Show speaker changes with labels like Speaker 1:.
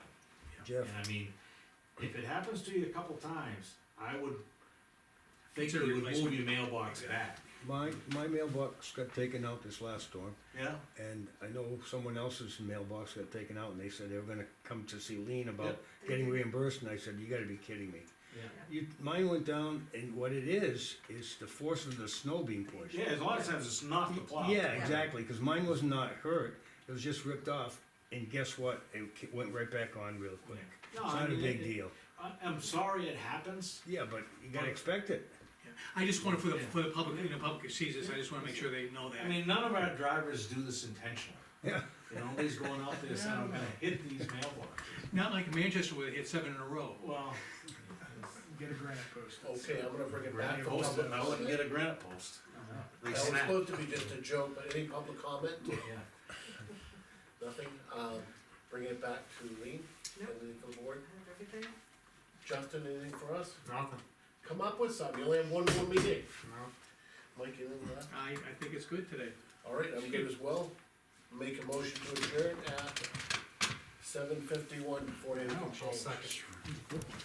Speaker 1: Jeff.
Speaker 2: And I mean, if it happens to you a couple times, I would think
Speaker 3: Consider
Speaker 2: you would move
Speaker 3: replacement.
Speaker 2: your mailbox back,
Speaker 1: My, my mailbox got taken out this last storm,
Speaker 2: yeah?
Speaker 1: and I know someone else's mailbox got taken out, and they said they were gonna come to see Lean about
Speaker 2: Yep.
Speaker 1: getting reimbursed, and I said, you gotta be kidding me.
Speaker 2: Yeah.
Speaker 1: You, mine went down, and what it is, is the force of the snow being pushed.
Speaker 2: Yeah, as long as it's not the plow.
Speaker 1: Yeah, exactly, cause mine was not hurt, it was just ripped off, and guess what, it ki- went right back on real quick. It's
Speaker 2: No, I
Speaker 1: not a
Speaker 2: mean,
Speaker 1: big
Speaker 2: it-
Speaker 1: deal,
Speaker 2: I, I'm sorry it happens,
Speaker 1: yeah, but you gotta expect it.
Speaker 3: Yeah. I just wanted for the,
Speaker 2: Yeah.
Speaker 3: for the public, you know, public who sees this, I just wanna make sure they know
Speaker 2: I
Speaker 3: that.
Speaker 2: mean, none of our drivers do this intentionally,
Speaker 1: Yeah,
Speaker 2: you know, nobody's going out there saying, I'm gonna hit these mailboxes.
Speaker 3: Not like Manchester where they hit seven in a row.
Speaker 2: Well,
Speaker 4: Get a granite post.
Speaker 5: Okay, I'm gonna bring it back
Speaker 2: granite
Speaker 5: for
Speaker 2: post,
Speaker 5: public.
Speaker 2: I wouldn't
Speaker 5: That
Speaker 2: get a granite post. They
Speaker 5: was
Speaker 2: snap.
Speaker 5: supposed to be just a joke, but any public comment,
Speaker 2: Yeah.
Speaker 5: nothing, um, bringing it back to Lean,
Speaker 6: No.
Speaker 5: anything for the board,
Speaker 6: Have everything?
Speaker 5: Justin, anything for us? Nothing. Come up with something, you only have one more meeting. No. Mike, anything left?
Speaker 3: I, I think it's good today.
Speaker 5: Alright, I'm good as well, make a motion to adjourn at seven fifty-one before anything changes.